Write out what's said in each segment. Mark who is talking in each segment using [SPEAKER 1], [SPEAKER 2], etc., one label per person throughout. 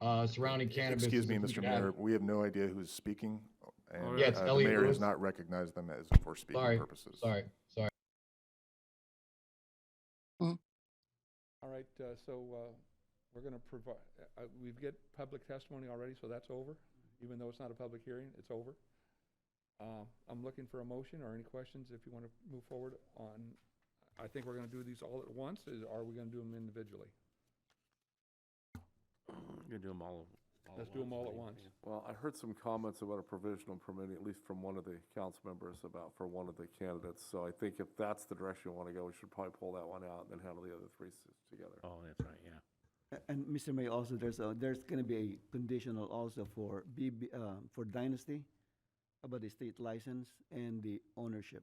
[SPEAKER 1] uh, surrounding cannabis.
[SPEAKER 2] Excuse
[SPEAKER 1] is
[SPEAKER 2] me,
[SPEAKER 1] a huge
[SPEAKER 2] Mr.
[SPEAKER 1] hazard.
[SPEAKER 2] Mayor, we have no idea who's speaking. and,
[SPEAKER 1] Yeah, it's
[SPEAKER 2] uh, the
[SPEAKER 1] Elliot
[SPEAKER 2] Mayor
[SPEAKER 1] Lewis.
[SPEAKER 2] has not recognized them as for speaking
[SPEAKER 1] Sorry,
[SPEAKER 2] purposes.
[SPEAKER 1] Sorry, sorry.
[SPEAKER 3] All right, uh, so uh, we're going to provide, uh, we've get public testimony already, so that's over, even though it's not a public hearing, it's over. Uh, I'm looking for a motion or any questions if you want to move forward on, I think we're going to do these all at once, is- or are we going to do them individually?
[SPEAKER 4] You're gonna do them all. all
[SPEAKER 3] Let's do 'em all at
[SPEAKER 4] right?
[SPEAKER 3] once.
[SPEAKER 4] Yeah.
[SPEAKER 5] Well, I heard some comments about a provisional permit, at least from one of the council members about, for one of the candidates. So I think if that's the direction you want to go, we should probably pull that one out and then handle the other three s- together.
[SPEAKER 4] Oh, that's right, yeah.
[SPEAKER 6] A- And Mr. Mayor, also, there's a, there's gonna be a conditional also for BB, uh, for Dynasty about the state license and the ownership.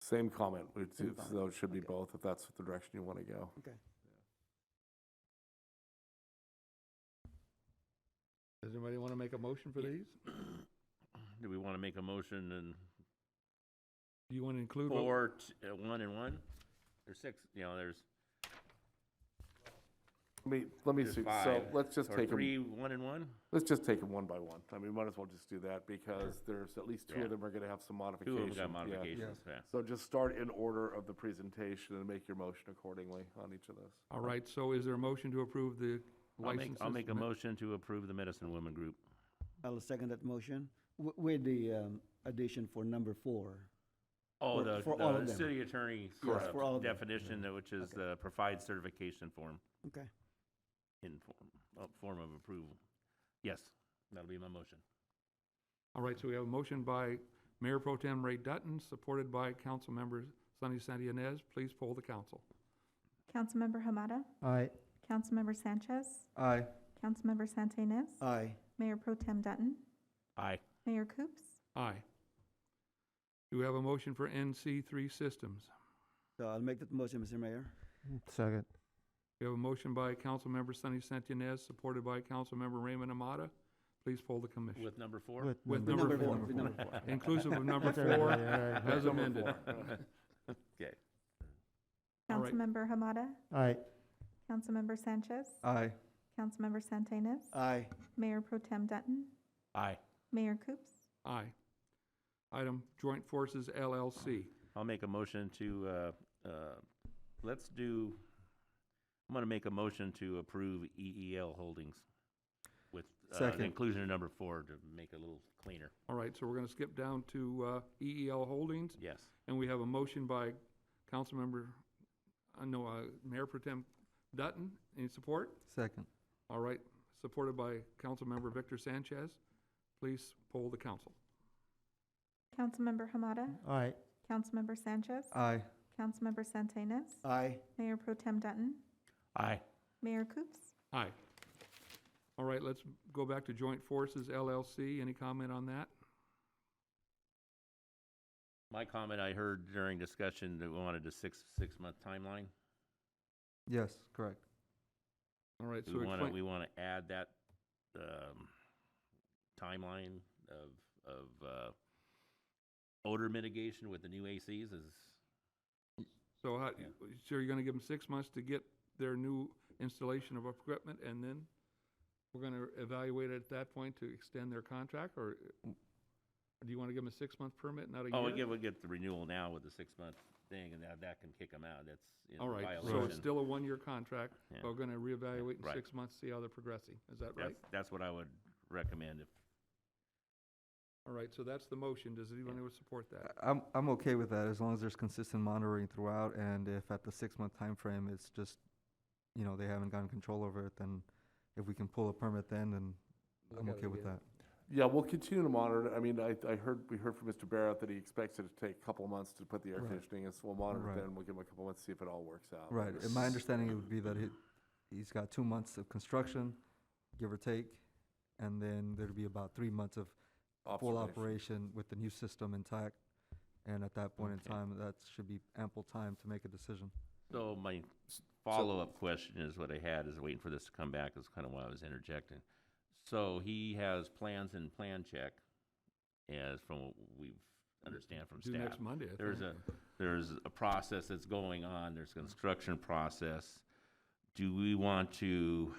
[SPEAKER 5] Same comment, which
[SPEAKER 6] Same
[SPEAKER 5] is-
[SPEAKER 6] comment,
[SPEAKER 5] though it should be
[SPEAKER 6] okay.
[SPEAKER 5] both, if that's the direction you want to go.
[SPEAKER 6] Okay.
[SPEAKER 3] Does anybody want to make a motion for these?
[SPEAKER 4] Do we want to make a motion and
[SPEAKER 3] Do you want to include? what-
[SPEAKER 4] four, t- uh, one and one? There's six, you know, there's,
[SPEAKER 5] Let me, let me
[SPEAKER 4] there's
[SPEAKER 5] see, so
[SPEAKER 4] five.
[SPEAKER 5] let's just
[SPEAKER 4] Or
[SPEAKER 5] take
[SPEAKER 4] Three,
[SPEAKER 5] them,
[SPEAKER 4] one and one?
[SPEAKER 5] let's just take them one by one. I mean, might as well just do that because there's at least two
[SPEAKER 4] Yeah.
[SPEAKER 5] of them are going to have some
[SPEAKER 4] Two of
[SPEAKER 5] modifications.
[SPEAKER 4] them got
[SPEAKER 5] yeah.
[SPEAKER 4] modifications, yeah.
[SPEAKER 5] So just start in order of the presentation and make your motion accordingly on each of those.
[SPEAKER 3] All right, so is there a motion to approve the
[SPEAKER 4] I'll make,
[SPEAKER 3] licenses?
[SPEAKER 4] I'll make a
[SPEAKER 3] Ma-
[SPEAKER 4] motion to approve the Medicine Woman Group.
[SPEAKER 6] I'll second that motion wi- with the, um, addition for number four.
[SPEAKER 4] Oh,
[SPEAKER 6] For-
[SPEAKER 4] the,
[SPEAKER 6] for all of
[SPEAKER 4] the
[SPEAKER 6] them.
[SPEAKER 4] city attorney's
[SPEAKER 6] Yes,
[SPEAKER 4] uh,
[SPEAKER 6] for all of them.
[SPEAKER 4] definition, uh, which is the provide certification form,
[SPEAKER 6] Okay.
[SPEAKER 4] in form, uh, form of approval. Yes, that'll be my motion.
[SPEAKER 3] All right, so we have a motion by Mayor Pro Tem Ray Dutton, supported by Councilmember Sonny Santianez. Please poll the council.
[SPEAKER 7] Councilmember Hamada?
[SPEAKER 6] Aye.
[SPEAKER 7] Councilmember Sanchez?
[SPEAKER 6] Aye.
[SPEAKER 7] Councilmember Santinas?
[SPEAKER 6] Aye.
[SPEAKER 7] Mayor Pro Tem Dutton?
[SPEAKER 4] Aye.
[SPEAKER 7] Mayor Coops?
[SPEAKER 3] Aye. Do we have a motion for NC three systems?
[SPEAKER 6] So I'll make that motion, Mr. Mayor.
[SPEAKER 8] Second.
[SPEAKER 3] We have a motion by Councilmember Sonny Santinez, supported by Councilmember Raymond Amata. Please poll the commission.
[SPEAKER 4] With number four?
[SPEAKER 3] With
[SPEAKER 6] With
[SPEAKER 3] number
[SPEAKER 6] number
[SPEAKER 3] four,
[SPEAKER 6] one, with number four.
[SPEAKER 3] inclusive of number
[SPEAKER 8] That's all right,
[SPEAKER 3] four,
[SPEAKER 8] all right,
[SPEAKER 3] as amended.
[SPEAKER 4] Okay.
[SPEAKER 3] All right.
[SPEAKER 7] Councilmember Hamada?
[SPEAKER 8] Aye.
[SPEAKER 7] Councilmember Sanchez?
[SPEAKER 8] Aye.
[SPEAKER 7] Councilmember Santinas?
[SPEAKER 6] Aye.
[SPEAKER 7] Mayor Pro Tem Dutton?
[SPEAKER 4] Aye.
[SPEAKER 7] Mayor Coops?
[SPEAKER 3] Aye. Item Joint Forces LLC.
[SPEAKER 4] I'll make a motion to, uh, uh, let's do, I'm going to make a motion to approve EEL Holdings with uh, an
[SPEAKER 8] Second.
[SPEAKER 4] inclusion of number four to make it a little cleaner.
[SPEAKER 3] All right, so we're going to skip down to uh, EEL Holdings.
[SPEAKER 4] Yes.
[SPEAKER 3] And we have a motion by Councilmember, I know, uh, Mayor Pro Tem Dutton, any support?
[SPEAKER 8] Second.
[SPEAKER 3] All right, supported by Councilmember Victor Sanchez. Please poll the council.
[SPEAKER 7] Councilmember Hamada?
[SPEAKER 8] Aye.
[SPEAKER 7] Councilmember Sanchez?
[SPEAKER 8] Aye.
[SPEAKER 7] Councilmember Santinas?
[SPEAKER 6] Aye.
[SPEAKER 7] Mayor Pro Tem Dutton?
[SPEAKER 4] Aye.
[SPEAKER 7] Mayor Coops?
[SPEAKER 3] Aye. All right, let's go back to Joint Forces LLC. Any comment on that?
[SPEAKER 4] My comment I heard during discussion that we wanted a six, six-month timeline.
[SPEAKER 8] Yes, correct.
[SPEAKER 3] All right, so
[SPEAKER 4] We want to, we
[SPEAKER 3] explain,
[SPEAKER 4] want to add that um, timeline of, of uh, odor mitigation with the new ACs is,
[SPEAKER 3] so how, so you're gonna give them six months to get their new installation of equipment, and then we're gonna evaluate at that point to extend their contract, or uh, do you wanna give them a six-month permit, not a year?
[SPEAKER 4] oh, we get, we get the renewal now with the six-month thing, and that, that can kick them out. That's in
[SPEAKER 3] All right,
[SPEAKER 4] violation.
[SPEAKER 3] so it's still a one-year contract,
[SPEAKER 4] Yeah.
[SPEAKER 3] but we're gonna reevaluate in
[SPEAKER 4] Right.
[SPEAKER 3] six months, see how they're progressing. Is that right?
[SPEAKER 4] That's, that's what I would recommend if,
[SPEAKER 3] All right, so that's the motion. Does anyone who would support that?
[SPEAKER 8] I- I'm, I'm okay with that as long as there's consistent monitoring throughout and if at the six-month time frame, it's just, you know, they haven't gotten control over it, then if we can pull a permit then, then
[SPEAKER 3] Look
[SPEAKER 8] I'm
[SPEAKER 3] at it
[SPEAKER 8] okay with
[SPEAKER 3] again.
[SPEAKER 8] that.
[SPEAKER 5] Yeah, we'll continue to monitor. it. I mean, I, I heard, we heard from Mr. Barrett that he expects it to take a couple of months to put the air
[SPEAKER 8] Right.
[SPEAKER 5] conditioning in, so we'll monitor
[SPEAKER 8] Right.
[SPEAKER 5] it then. We'll give him a couple of months, to see if it all works out.
[SPEAKER 8] Right, and my understanding it would be that he, he's got two months of construction, give or take, and then there'd be about three months of full
[SPEAKER 5] Observation.
[SPEAKER 8] operation with the new system intact. And at that point in
[SPEAKER 4] Okay.
[SPEAKER 8] time, that should be ample time to make a decision.
[SPEAKER 3] Mm.
[SPEAKER 4] so my follow-up question is what I had, is waiting for this to come back, is kind of why I was interjecting. So he has plans in plan check, as from what we've understand from
[SPEAKER 3] Due
[SPEAKER 4] staff.
[SPEAKER 3] next Monday, I think.
[SPEAKER 4] There's a, there's a process that's going on, there's construction process. Do we want to